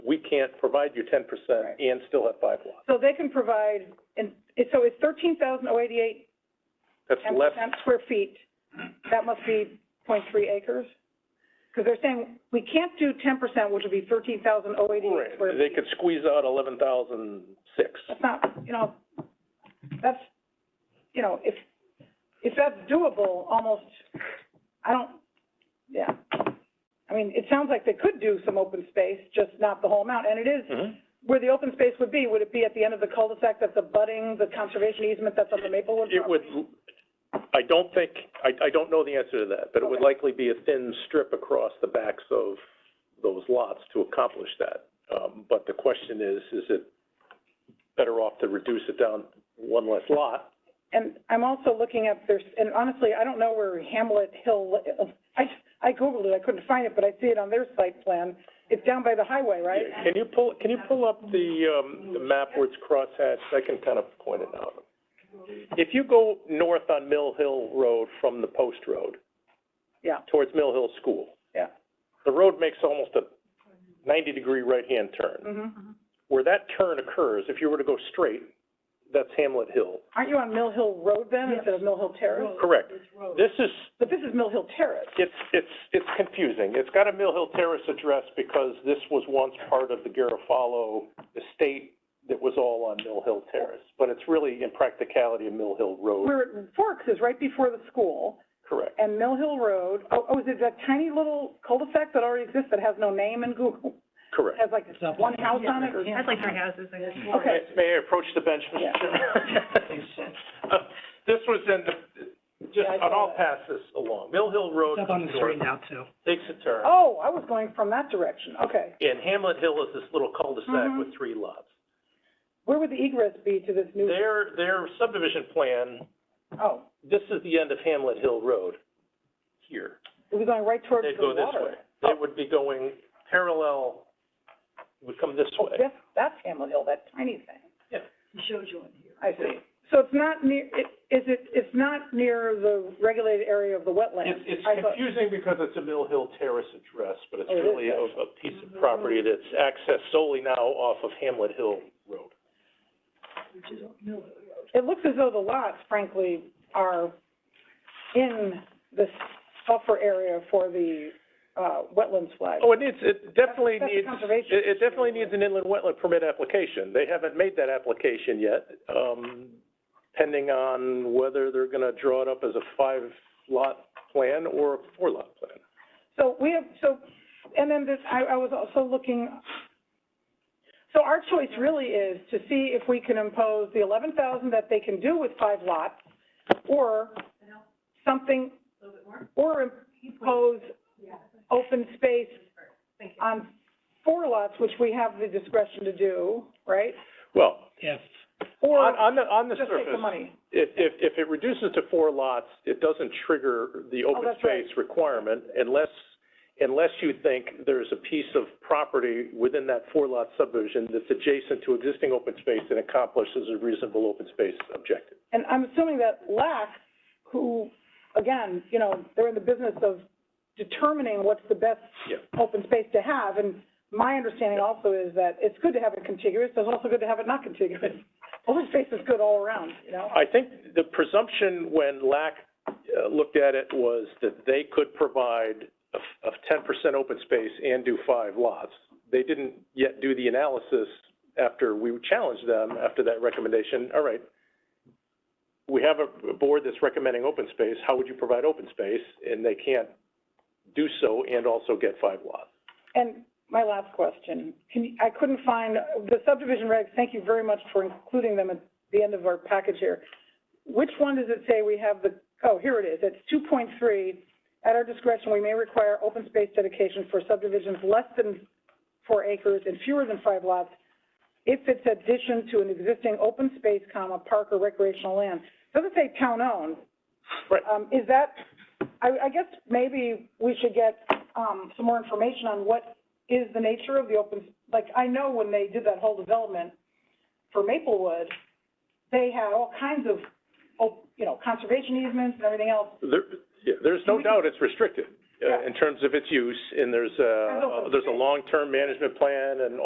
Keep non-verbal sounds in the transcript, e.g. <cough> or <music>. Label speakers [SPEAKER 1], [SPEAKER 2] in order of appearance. [SPEAKER 1] can't provide you ten percent
[SPEAKER 2] Right.
[SPEAKER 1] and still have five lots.
[SPEAKER 2] So they can provide, and, so it's thirteen thousand oh eighty-eight,
[SPEAKER 1] That's
[SPEAKER 2] ten
[SPEAKER 1] less,
[SPEAKER 2] percent square feet, that must be point three acres? Because they're saying, we can't do ten percent, which would be thirteen thousand oh eighty-eight square
[SPEAKER 1] Right. they
[SPEAKER 2] feet.
[SPEAKER 1] could squeeze out eleven thousand six.
[SPEAKER 2] That's not, you know, that's, you know, if, if that's doable, almost, I don't, yeah. I mean, it sounds like they could do some open space, just not the whole amount, and it is where the open space would be, would it be at the end of the cul-de-sac that's abutting the conservation easement that's on the Maplewood
[SPEAKER 1] It would,
[SPEAKER 2] property?
[SPEAKER 1] I don't think, I, I don't know the answer to that, but it would
[SPEAKER 2] Okay.
[SPEAKER 1] likely be a thin strip across the backs of those lots to accomplish that. Um, but the question is, is it better off to reduce it down one less lot?
[SPEAKER 2] And I'm also looking at there's, and honestly, I don't know where Hamlet Hill, oh, I, I Googled it, I couldn't find it, but I see it on their site plan. It's down by the highway, right?
[SPEAKER 1] Can you pull, can you pull up the, um, the map where it's crosshatched? I can kind of point it out. If you go north on Mill Hill Road from the post road
[SPEAKER 2] Yeah,
[SPEAKER 1] towards Mill Hill School,
[SPEAKER 2] yeah.
[SPEAKER 1] the road makes almost a ninety-degree right-hand turn.
[SPEAKER 2] Mhm.
[SPEAKER 1] where that turn occurs, if you were to go straight, that's Hamlet Hill.
[SPEAKER 2] Aren't you on Mill Hill Road then, instead of Mill Hill Terrace?
[SPEAKER 1] Correct. This is,
[SPEAKER 2] But this is Mill Hill Terrace.
[SPEAKER 1] it's, it's, it's confusing. It's got a Mill Hill Terrace address because this was once part of the Garofalo estate that was all on Mill Hill Terrace. But it's really in practicality a Mill Hill Road,
[SPEAKER 2] Where it forks is right before the school,
[SPEAKER 1] correct.
[SPEAKER 2] and Mill Hill Road, oh, oh, is it that tiny little cul-de-sac that already exists that has no name in Google? It
[SPEAKER 1] Correct.
[SPEAKER 2] has like one house on it or?
[SPEAKER 3] That's like three houses, I guess.
[SPEAKER 2] Okay.
[SPEAKER 1] May I approach the bench,
[SPEAKER 2] Yeah.
[SPEAKER 1] Mr. Chairman? Uh,
[SPEAKER 2] <laughs>
[SPEAKER 1] This was in the, just,
[SPEAKER 2] Yeah, I
[SPEAKER 1] and I'll
[SPEAKER 2] saw that.
[SPEAKER 1] pass this along. Mill Hill Road
[SPEAKER 3] It's up on the
[SPEAKER 1] comes
[SPEAKER 3] screen
[SPEAKER 1] north,
[SPEAKER 3] now, too.
[SPEAKER 1] takes a turn.
[SPEAKER 2] Oh, I was going from that direction, okay.
[SPEAKER 1] And Hamlet Hill is this little cul-de-sac
[SPEAKER 2] Mhm.
[SPEAKER 1] with three lots.
[SPEAKER 2] Where would the egress be to this new,
[SPEAKER 1] Their, their subdivision plan,
[SPEAKER 2] oh,
[SPEAKER 1] this is the end of Hamlet Hill Road here.
[SPEAKER 2] it was going right towards
[SPEAKER 1] They'd go
[SPEAKER 2] the water.
[SPEAKER 1] this way. They would be going parallel, would come this
[SPEAKER 2] Oh,
[SPEAKER 1] way.
[SPEAKER 2] that's, that's Hamlet Hill, that tiny thing.
[SPEAKER 1] Yeah.
[SPEAKER 2] I see. So it's not near, it, is it, it's not near the regulated area of the wetlands?
[SPEAKER 1] It's, it's
[SPEAKER 2] I thought-
[SPEAKER 1] confusing because it's a Mill Hill Terrace address, but it's
[SPEAKER 2] Oh, it is,
[SPEAKER 1] really a, a piece of property that's accessed solely now off of Hamlet Hill Road.
[SPEAKER 2] It looks as though the lots, frankly, are in this buffer area for the, uh, wetlands flag.
[SPEAKER 1] Oh, it needs, it definitely
[SPEAKER 2] That's- that's
[SPEAKER 1] needs,
[SPEAKER 2] conservation.
[SPEAKER 1] it, it definitely needs an inland wetland permit application. They haven't made that application yet, um, pending on whether they're gonna draw it up as a five-lot plan or a four-lot plan.
[SPEAKER 2] So we have, so, and then this, I, I was also looking, so our choice really is to see if we can impose the eleven thousand that they can do with five lots, or something, or impose open space on four lots, which we have the discretion to do, right?
[SPEAKER 1] Well,
[SPEAKER 3] If,
[SPEAKER 1] on,
[SPEAKER 2] Or
[SPEAKER 1] on the, on the
[SPEAKER 2] just take the
[SPEAKER 1] surface,
[SPEAKER 2] money.
[SPEAKER 1] if, if, if it reduces to four lots, it doesn't trigger the open
[SPEAKER 2] Oh, that's right.
[SPEAKER 1] space requirement unless, unless you think there's a piece of property within that four-lot subdivision that's adjacent to existing open space and accomplishes a reasonable open space objective.
[SPEAKER 2] And I'm assuming that LAC, who, again, you know, they're in the business of determining what's the best
[SPEAKER 1] Yeah.
[SPEAKER 2] open space to have, and my understanding also is that it's good to have it contiguous, but it's also good to have it not contiguous. <laughs> Open space is good all around, you know?
[SPEAKER 1] I think the presumption when LAC uh, looked at it was that they could provide a f- a ten percent open space and do five lots. They didn't yet do the analysis after we challenged them after that recommendation, all right, we have a a board that's recommending open space, how would you provide open space? And they can't do so and also get five lots.
[SPEAKER 2] And my last question, can you, I couldn't find, the subdivision regs, thank you very much for including them at the end of our package here. Which one does it say we have the, oh, here it is, it's two point three. At our discretion, we may require open space dedication for subdivisions less than four acres and fewer than five lots if it's addition to an existing open space, comma, park or recreational land. Doesn't say town-owned.
[SPEAKER 1] Right.
[SPEAKER 2] Um, is that, I, I guess maybe we should get, um, some more information on what is the nature of the open, like, I know when they did that whole development for Maplewood, they had all kinds of, op- you know, conservation easements and everything else.
[SPEAKER 1] There, yeah, there's no
[SPEAKER 2] We can-
[SPEAKER 1] doubt it's restricted,
[SPEAKER 2] Yeah.
[SPEAKER 1] uh, in terms of its use, and there's
[SPEAKER 2] As open
[SPEAKER 1] a, there's a
[SPEAKER 2] space.
[SPEAKER 1] long-term management plan and